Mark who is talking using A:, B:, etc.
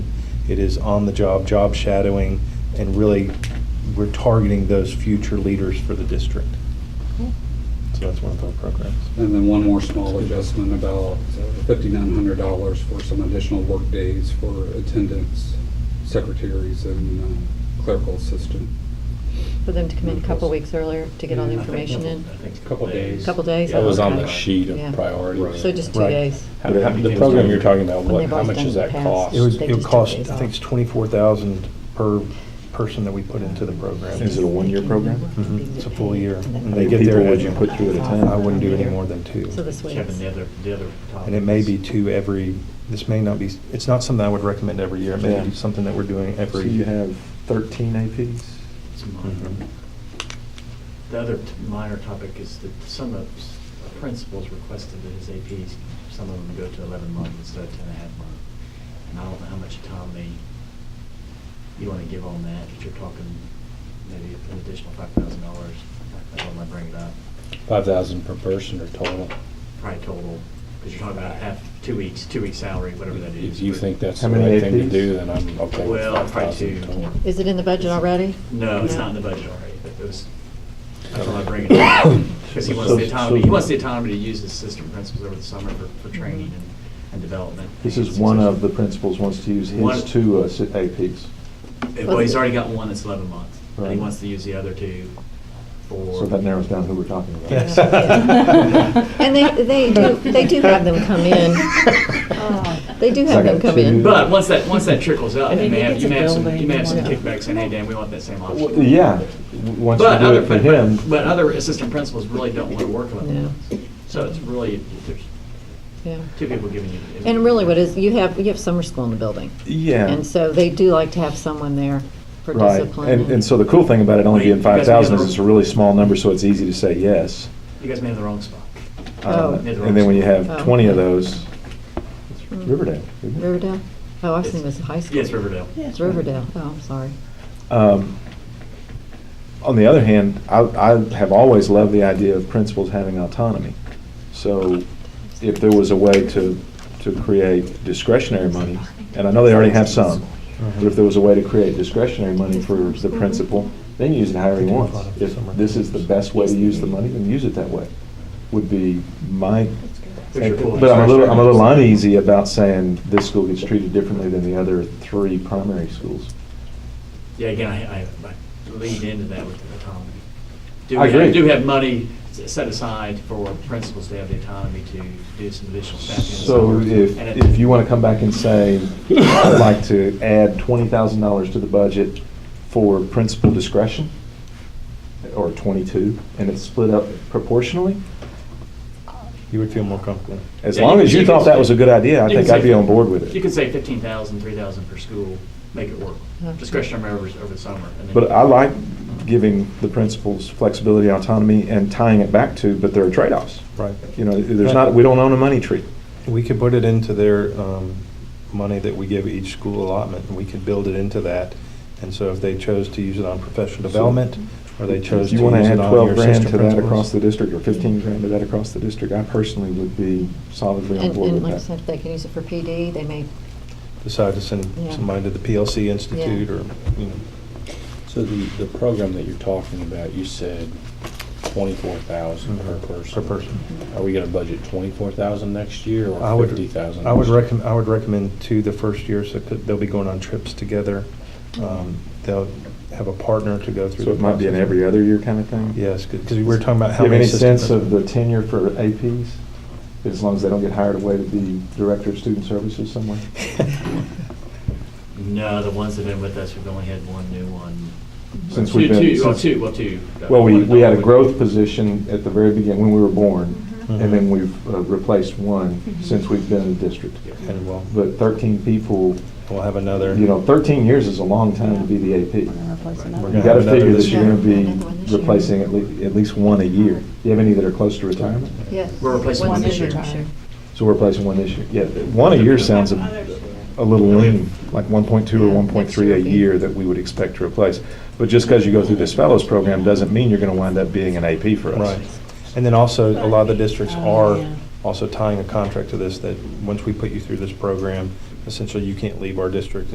A: It is on the job, job shadowing, and really, we're targeting those future leaders for the district. So that's one of our programs.
B: And then one more small adjustment, about fifty-nine hundred dollars for some additional work days for attendants, secretaries, and uh, clerical assistant.
C: For them to come in a couple weeks earlier to get all the
B: Yeah, I think
C: information in?
B: Couple days.
C: Couple days?
D: That was on the
C: Okay.
D: sheet
C: Yeah.
D: of priorities.
C: So just two
A: Right.
C: days?
D: How- how- The program you're talking about,
C: When
D: what,
C: they've
D: how
C: always
D: much
C: done
D: does
C: it in
D: that
C: the past.
D: cost?
A: It would,
C: They
A: it would
C: just took
A: cost, I
C: days
A: think
C: off.
A: it's twenty-four thousand per person that we put into the program.
E: Is it a one-year program?
A: Mhm, It's a full year. And
E: How
A: they
E: many
A: get there.
E: people would you put through at a time?
A: I wouldn't do any more than two.
C: So this way
F: Kevin, the other, the other topic.
A: And it may be
F: is-
A: two every, this may not be, it's not something I would recommend every year. It may
E: Yeah.
A: be something that we're doing
E: So
A: every.
E: you have 13 APs?
F: it's a minor.
A: Mhm.
F: The other t- minor topic is that some of s- principals requested that his APs, some of them go to eleven months instead of ten and a half months. And I don't know how much time they, you wanna give on that, but you're talking maybe an additional five thousand dollars. That's what I bring it up,
D: Five thousand per person or total?
F: probably total, because you're talking about half, two weeks, two weeks salary, whatever that is.
D: If you think that's
E: How
D: the
E: many
D: right thing to
E: APs?
D: do, then I'm okay with
F: Well,
D: five
F: probably two.
D: thousand total.
C: Is it in the budget already?
F: No, it's not in the budget already, but it was, that's why I bring it up. Because he wants the autonomy, he wants the autonomy to use his assistant principals over the summer for, for training and, and development.
E: This is one of the principals wants to use
F: One-
E: his two uh, si- APs.
F: Well, he's already got one that's eleven months, and he
E: Right.
F: wants to use the other two for.
E: So that narrows down who we're talking about.
A: Yes.
C: And they, they do, they do have them come in. They do have them come in.
F: But once that, once that trickles up, you may have,
G: it's
F: you
G: a
F: may have some, you may have some
C: building.
F: kickbacks saying, hey, Dan, we want that same
E: Well,
F: option.
E: Yeah, w- once you
F: But
E: do
F: other,
E: it for
F: but,
E: him.
F: but- but other assistant principals really don't want to work
C: No.
F: eleven months. So it's really, there's
C: Yeah.
F: two people giving you.
C: And really what is, you have, you have summer school in the building.
E: Yeah.
C: And so they do like to have someone there for
E: Right,
C: discipline.
E: and, and so the cool thing about it only
F: Wait,
E: being
F: you guys have
E: five thousand is
F: another-
E: it's a really small number, so it's easy to say yes.
F: You guys may have the wrong spot.
C: Oh.
E: Uh, And then when you have
C: Oh.
E: twenty of those,
C: Mm.
E: Riverdale. isn't it?
C: Riverdale? Oh, I was thinking it was high school.
F: Yes, Riverdale.
C: It's Riverdale. Oh, I'm sorry.
E: Um, On the other hand, I, I have always loved the idea of principals having autonomy. So if there was a way to, to create discretionary money, and I know they already have some, but if there was a way to create discretionary money for the
C: Mm-hmm.
E: principal, then use it however he wants. If this is the best way to use the money, then use it that way, would be my
F: There's your pool.
E: but I'm a little, I'm a little uneasy about saying this school gets treated differently than the other three primary schools.
F: Yeah, again, I, I I lead into that with autonomy. Do
E: I
F: we have-
E: agree.
F: Do have money s- set aside for principals to have the autonomy to do some additional staffing. and
E: So
F: stuff.
E: if,
F: And it-
E: if you want to come back and say, I'd like to add twenty thousand dollars to the budget for principal discretion, or twenty-two, and it's split up proportionally,
A: You would feel more comfortable.
E: as
F: Yeah,
E: long
F: you
E: as
F: can-
E: you
F: you can
E: thought that
F: say-
E: was a good idea, I
F: you can
E: think I'd
F: say-
E: be on board with
F: You
E: it.
F: can say fifteen thousand, three thousand per school, make it work. Discretionary over, over the summer. and then-
E: But I like giving the principals flexibility, autonomy, and tying it back to, but there are trade-offs.
A: Right.
E: You know, there's not, we don't own a money tree.
A: We could put it into their um, money that we give each school allotment, and we could build it into that. And so if they chose to use it on professional development, or they chose
E: If
A: to
E: you want to
A: use
E: add
A: it on your
E: 12 grand
A: assistant
E: to that
A: principals.
E: across the district, or 15 grand to that across the district, I personally would be solidly on
C: And,
E: board
C: and
E: with
C: like I
E: that.
C: said, if they can use it for PD, they may,
A: Decide to send
C: Yeah.
A: somebody to the PLC Institute, or, you know.
D: So the, the program that you're talking about, you said twenty-four thousand per
A: Mhm, per
D: person.
A: person.
D: Are we gonna budget twenty-four thousand next year
A: I
D: or
A: would-
D: fifty thousand?
A: I would recommend, I would recommend two the first year, so that they'll be going on trips together. Um, They'll have a partner to go through.
E: So it
A: the
E: might be an
A: process.
E: every other year kind of thing?
A: Yes, because we were talking about how
E: Do you have
A: many
E: any
A: assistant
E: sense of the
A: principals.
E: tenure for APs? As long as they don't get hired away to be director of student services somewhere?
F: No, the ones that have been with us, we've only had one new one.
E: Since
F: Two-
E: we've been-
F: Two, oh,
E: since-
F: two, well, two.
E: Well, we,
F: One
E: we had a
F: adult.
E: growth position at the very beginning, when we were born,
A: Mhm.
E: and then we've uh, replaced one since we've been in the district.
A: And we'll,
E: But 13 people,
A: we'll have another.
E: you know, 13 years is a long time to be the AP.
A: We're
E: You
A: gonna have
E: gotta
A: another
E: figure
A: this
E: that you're
A: year.
E: gonna be
C: Another one this year.
E: replacing at least, at least one a year. Do you have any that are close to retirement?
C: yes.
F: We're replacing
C: Once a
F: one this year.
C: sure.
E: So we're replacing one this year. Yeah, one a year sounds a, a little lean, like one point two or
C: Yeah,
E: one point three a
C: next year.
E: year that we would expect to replace. But just because you go through this fellows program doesn't mean you're gonna wind up being an AP for us.
A: Right. And then also, a lot of the districts
G: Oh,
A: are
G: yeah.
A: also tying a contract to this, that once we put you through this program, essentially you can't leave our district